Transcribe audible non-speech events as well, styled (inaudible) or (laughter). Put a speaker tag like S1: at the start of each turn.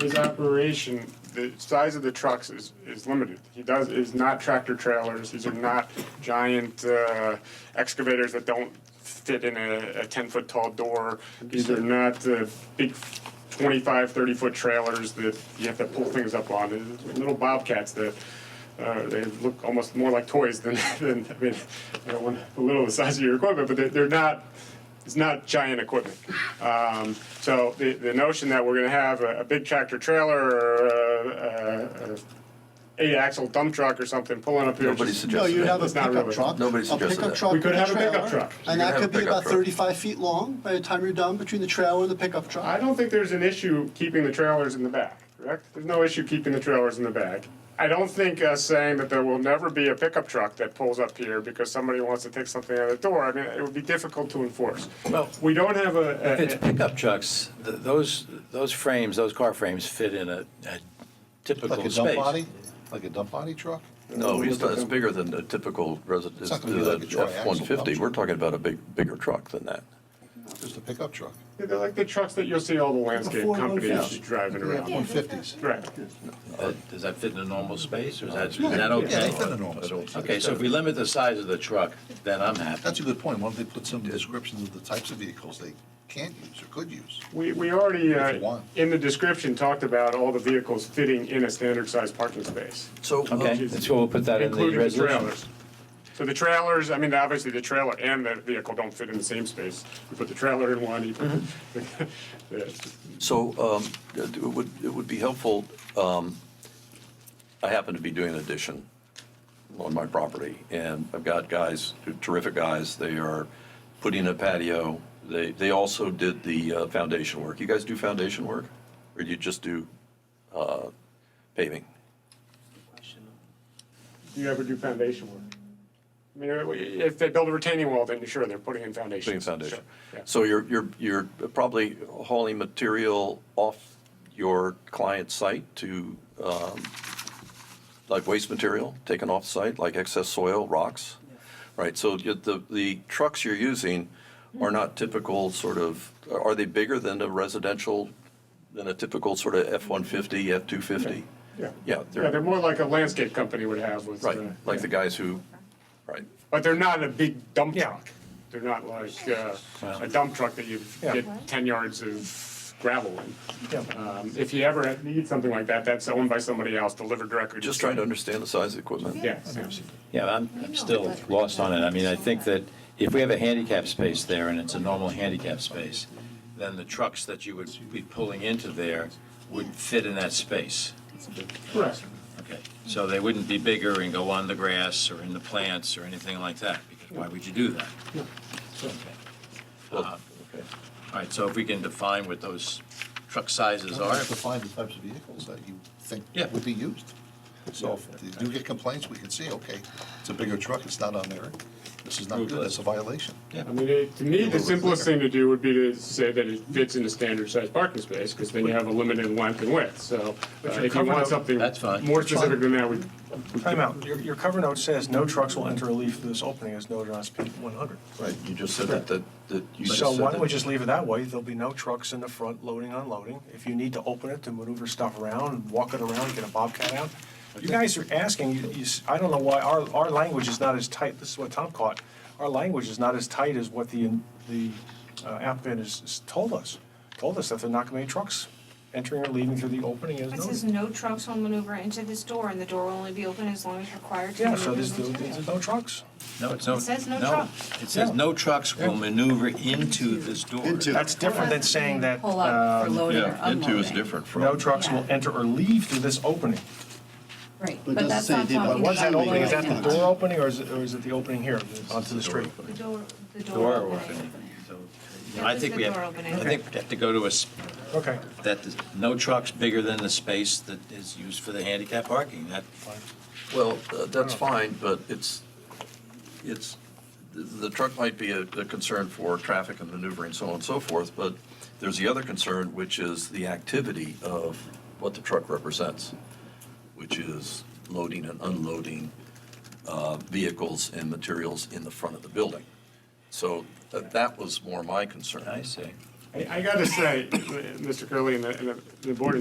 S1: his operation, the size of the trucks is, is limited. He does, is not tractor trailers, these are not giant uh, excavators that don't fit in a, a ten-foot tall door. These are not uh, big 25, 30-foot trailers that you have to pull things up on, They're little bobcats that, uh, they look almost more like toys than, (laughs) than, I mean, I don't want to belittle the size of your equipment, but they're, they're not, it's not giant equipment. Um, so the, the notion that we're gonna have a, a big tractor trailer or a, a, a eight-axle dump truck or something pulling up here.
S2: Nobody
S1: just-
S2: suggested
S3: No, you'd have a
S1: That's not
S3: pickup
S1: really-
S3: truck.
S2: Nobody suggested
S3: A pickup
S2: that.
S3: truck
S1: We
S3: with
S1: could
S3: a
S1: have a pickup
S3: trailer,
S1: truck.
S2: You could
S3: And that
S2: have a
S3: could be
S2: pickup
S3: about
S2: truck.
S3: thirty-five feet long by the time you're done between the trailer and the pickup
S1: I
S3: truck.
S1: don't think there's an issue keeping the trailers in the back, correct? There's no issue keeping the trailers in the back. I don't think us saying that there will never be a pickup truck that pulls up here because somebody wants to take something out of the door, I mean, it would be difficult to enforce.
S4: Well-
S1: We don't have a- a.
S4: If it's pickup trucks, th- those, those frames, those car frames fit in a a typical
S5: Like a
S4: space.
S5: dump body? Like a dump body truck?
S2: No, he's not, it's bigger than a typical resident,
S5: It's not gonna be like a triaxle
S2: F-150.
S5: dump
S2: We're
S5: truck.
S2: talking about a big, bigger truck than that.
S5: Just a pickup truck.
S1: Yeah, They're like the trucks that you'll see all the landscape
S3: Before
S1: companies
S3: 150.
S1: driving
S5: Yeah,
S1: around.
S5: one fifties.
S1: Right.
S4: That- Does that fit in a normal space, or is that, is that okay?
S5: Yeah, they fit in a normal space.
S4: Okay, so if we limit the size of the truck, then I'm happy.
S5: That's a good point. Why don't they put some descriptions of the types of vehicles they can use or could use?
S1: We, we already,
S5: If
S1: uh,
S5: you want.
S1: in the description, talked about all the vehicles fitting in a standard sized parking space,
S2: So,
S4: Okay,
S2: uh,
S4: that's what we'll put that in the
S1: including the
S4: resolution.
S1: trailers. So the trailers, I mean, obviously the trailer and the vehicle don't fit in the same space. You put the trailer in one, you put,
S4: Mm-hmm.
S1: (laughs) Yeah.
S2: so um, it would, it would be helpful, um, I happen to be doing an addition on my property, and I've got guys, terrific guys, they are putting a patio. They, they also did the uh, foundation work. You guys do foundation work? Or do you just do uh, paving?
S1: Do you ever do foundation work? I mean, if they build a retaining wall, then sure, they're putting in foundations.
S2: Putting foundation.
S1: Sure, yeah.
S2: So you're, you're, you're probably hauling material off your client's site to, um, like waste material taken off site, like excess soil, rocks? Right, so you- the, the trucks you're using are not typical sort of, are they bigger than a residential, than a typical sort of F-150, F-250?
S1: Yeah.
S2: Yeah,
S1: Yeah, they're
S2: they're,
S1: more like a landscape company would have with.
S2: right,
S1: uh,
S2: like the guys who, right.
S1: But they're not a big dump truck. They're not like uh, a dump truck that you get 10 yards of gravel in. Um, If you ever need something like that, that's owned by somebody else, delivered directly. to
S2: Just
S1: the
S2: trying to understand the size of the equipment.
S1: Yeah. yeah.
S4: Yeah, I'm, I'm still lost on it. I mean, I think that if we have a handicap space there and it's a normal handicap space, then the trucks that you would be pulling into there would fit in that space.
S1: Correct.
S4: Okay, so they wouldn't be bigger and go on the grass or in the plants or anything like that, because why would you do that? Okay. Uh,
S2: Okay.
S4: All right, so if we can define what those truck sizes
S5: You
S4: are,
S5: have to find the types of vehicles that you think
S4: Yeah.
S5: would be used. So if you do get complaints, we can see, okay, it's a bigger truck, it's not on there. This is not good, that's a violation.
S4: yeah,
S1: I mean, it- to me, the simplest thing to do would be to say that it fits in a standard sized parking space, because then you have a limited length and width. So uh,
S6: you're
S1: if you
S6: covered
S1: want
S6: up-
S1: something
S4: That's fine.
S1: more specific than that, we.
S6: Time out. Your, your cover note says no trucks will enter or leave through this opening as noted on speed 100.
S2: Right, you just said that, that, that you just said
S6: So why don't we
S2: that-
S6: just leave it that way? There'll be no trucks in the front loading, unloading. If you need to open it to maneuver stuff around, walk it around, get a bobcat out. You guys are asking, you, you, s- I don't know why, our, our language is not as tight, this is what Tom caught. Our language is not as tight as what the, the uh, applicant has, has told us. Told us that they're not gonna be trucks entering or leaving through the opening as
S7: It says
S6: noted.
S7: no trucks will maneuver into this door, and the door will only be open as long as required to
S6: Yeah, so there's,
S7: maneuver
S6: there's
S7: material.
S6: no trucks.
S4: no, it's no.
S7: It says no trucks.
S4: It says no trucks will maneuver into this door.
S2: Into.
S6: That's different than saying that.
S8: Pull up for
S6: um,
S8: loading or
S2: Yeah,
S8: unloading.
S2: into is different from.
S6: No trucks will enter or leave through this opening.
S8: Right,
S5: But it
S8: but
S5: doesn't
S8: that's
S5: say
S8: not
S5: anything about
S8: talking
S5: what's
S6: What's that
S8: about
S6: opening, is that the
S8: loading.
S6: door opening, or is it, or is it the opening here, onto the street?
S7: The door, the door
S4: Door
S7: opening.
S4: opening. So, you know, I think we have,
S7: Door
S4: I
S7: opening.
S4: think we have to go to a, s-
S6: Okay,
S4: that, is- no trucks bigger than the space that is used for the handicap parking. That,
S2: Well, uh, that's fine, but it's, it's, the- the truck might be a a concern for traffic and maneuvering, so on and so forth, but there's the other concern, which is the activity of what the truck represents, which is loading and unloading uh, vehicles and materials in the front of the building. So uh, that was more my concern.
S4: I see.
S1: I I gotta say, Mr. Curley and the- and the, the board in